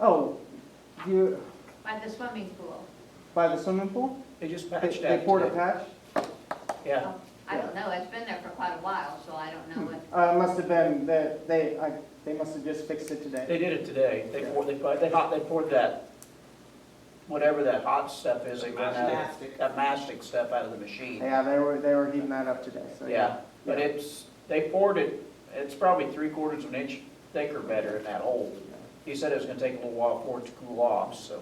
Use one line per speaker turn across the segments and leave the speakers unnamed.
Oh, you,
by the swimming pool.
by the swimming pool?
They just
They-
patched
They
that
poured a
today.
patch?
Yeah,
I don't know, it's been there for quite a while, so I don't know what,
Uh, it must have been that they, I, they must have just fixed it today.
they did it today. They
Yeah.
poured, they poured, they hot, they poured that, whatever that hot stuff is, they ran out of,
Mastic.
that mastic stuff out of the machine.
Yeah, they were, they were heating that up today, so.
Yeah, but it's, they poured it, it's probably three quarters of an inch thicker better in that hole. He said it was gonna take a little while for it to cool off, so.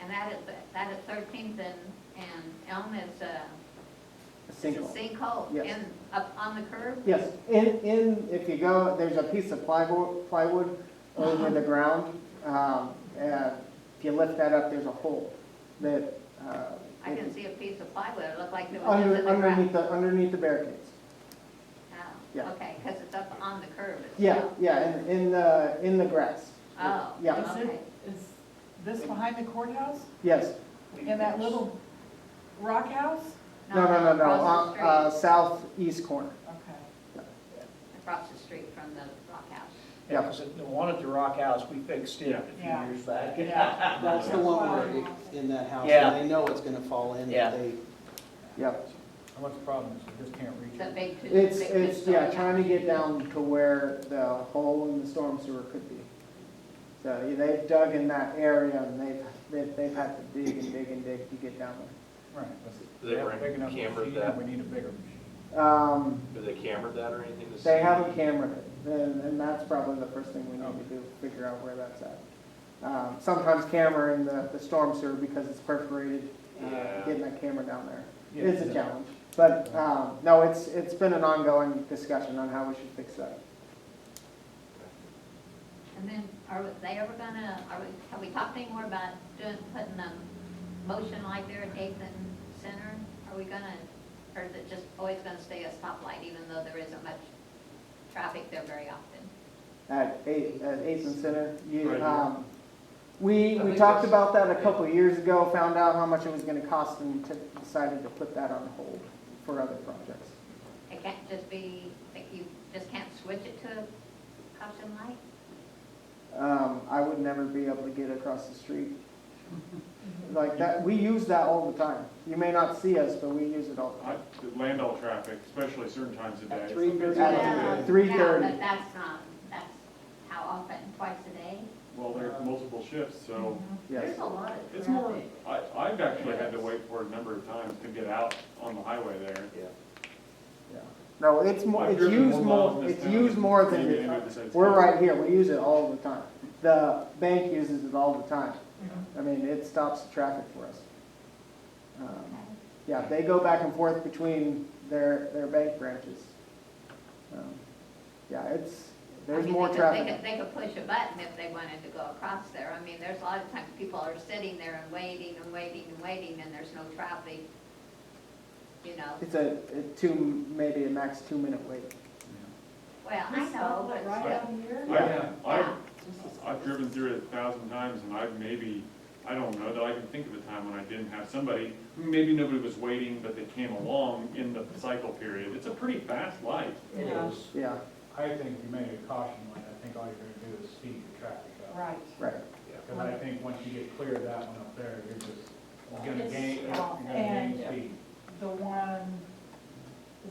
and that is, that is Thirteenth and, and Elm is a
A
is a
sinkhole.
sinkhole
Yes.
in, up on the curb?
Yes, in, in, if you go, there's a piece of plywood, plywood over the ground. Um, and if you lift that up, there's a hole that, uh.
I can see a piece of plywood, it looked like it was just in
Under,
the
underneath
ground.
the, underneath the barricades.
Oh,
Yeah.
Okay, because it's up on the curb
Yeah,
itself.
yeah, in, in the, in the grass.
Oh,
Yeah.
Is
okay.
it, is this behind the courthouse?
Yes,
In that little rock house?
no, no, no, no,
Across
uh,
the
uh,
Um, street,
southeast corner.
Okay.
across the street from the rock house.
Yeah, 'cause the one at the rock house, we fixed it a few
Yeah.
years back.
Yeah.
That's the one where it's in that house,
Yeah.
and they know it's gonna fall in,
Yeah.
if they
Yep.
And what's the problem, is you just can't reach
The
it?
big two.
It's,
big two
it's, yeah,
story
trying to
house.
get down to where the hole in the storm sewer could be. So yeah, they've dug in that area and they've, they've, they've had to dig and dig and dig to get down
Right.
Do they bring cameras that?
We need a bigger machine.
there. Um,
Do they camera that or anything to see?
they haven't cambered it, and, and that's probably the first thing we need to do, figure out where that's at. Um, sometimes cammering the, the storm sewer because it's perforated, uh,
Yeah.
getting that camera down there.
Yeah,
It's a
yeah.
challenge, but, um, no, it's, it's been an ongoing discussion on how we should fix that.
And then, are we- they ever gonna, are we, have we talked anymore about doing, putting a motion like there at Eighth and Center? Are we gonna, or is it just always gonna stay a stoplight even though there isn't much traffic there very often?
at eight, at Eighth and Center. You,
Right here.
um, we,
I
we
think
talked
that's-
about that a couple of years ago, found out how much it was gonna cost and t- decided to put that on hold for other projects.
It can't just be, that you just can't switch it to a caution light?
Um, I would never be able to get across the street. Like that, we use that all the time. You may not see us, but we use it all the
I-
time.
the Landau traffic, especially certain times of day.
At
it's-
3:30.
it's-
At three
Yeah,
thirty.
but that's not, that's how often, twice a day?
Well, there are multiple shifts, so
Mhm.
Yes.
a lot of
it's more, I, I've actually had to wait for a number of times to get out on the highway there.
Yeah.
No, it's more,
I've
it's
driven
used
more miles
more,
in this
it's
town
used
than
more than,
maybe
it-
any other city.
we're right here, we use it all the time. The bank uses it all the time. I mean, it stops the traffic for us. Um,
Okay.
Yeah, they go back and forth between their, their bank branches. Um, Yeah, it's,
I
there's
mean,
more
they could- They
traffic.
could, they could push a button if they wanted to go across there. I mean, there's a lot of times people are sitting there and waiting and waiting and waiting and there's no traffic, you know.
It's a, a two, maybe a max two-minute wait.
Well, I know, but
Right
still,
out here?
I-
yeah.
I've, I've driven through it a thousand times and I've maybe, I don't know that I can think of a time when I didn't have somebody, maybe nobody was waiting, but they came along in the cycle period. It's a pretty fast light.
It
Yeah.
is,
Yeah,
I think you made a caution light, I think all you're gonna do is speed the traffic up.
Right.
right.
Because I think once you get clear of that one up there, you're just gonna gain, you're gonna
And-
gain speed.
The one,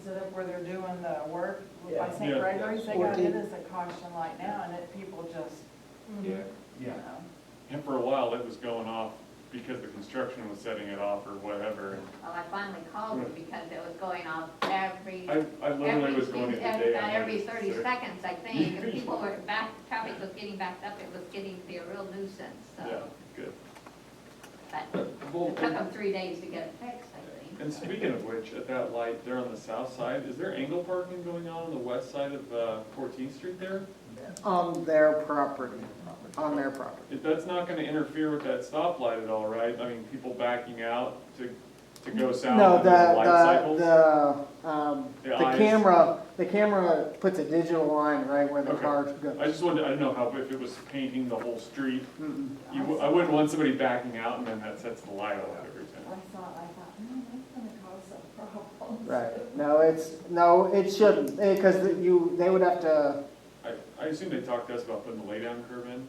is it up where they're doing the work by
Yeah.
St.
Yeah.
Gregory's? They got it
Fourteen.
as a caution light now and it, people just,
Yeah.
you
Yeah.
know.
And for a while, it was going off because the construction was setting it off or whatever.
well, I finally called them because it was going off every,
I, I literally
every,
was going every
every,
day.
about
on
every
that,
thirty
so-
seconds, I think. And people were back, traffic was getting backed up, it was getting to be a real nuisance,
Yeah,
so.
good.
But it took them three days to get it fixed, I think.
And speaking of which, at that light there on the south side, is there angle parking going on on the west side of uh, 14th Street there?
On their property, on their property.
If that's not gonna interfere with that stoplight at all, right? I mean, people backing out to, to go
No,
south and there's light
the,
cycles?
the, the, um,
The
the
eyes.
camera, the camera puts a digital line right where the
Okay.
car
I
goes.
just wanted, I don't know how, if it was painting the whole street,
Mm-mm.
you, w- I wouldn't want somebody backing out and then that sets the light off every time.
I thought, I thought, no, that's gonna cause some problems.
Right, no, it's, no, it shouldn't, because you, they would have to,
I, I assume they talked to us about putting the laydown curve in,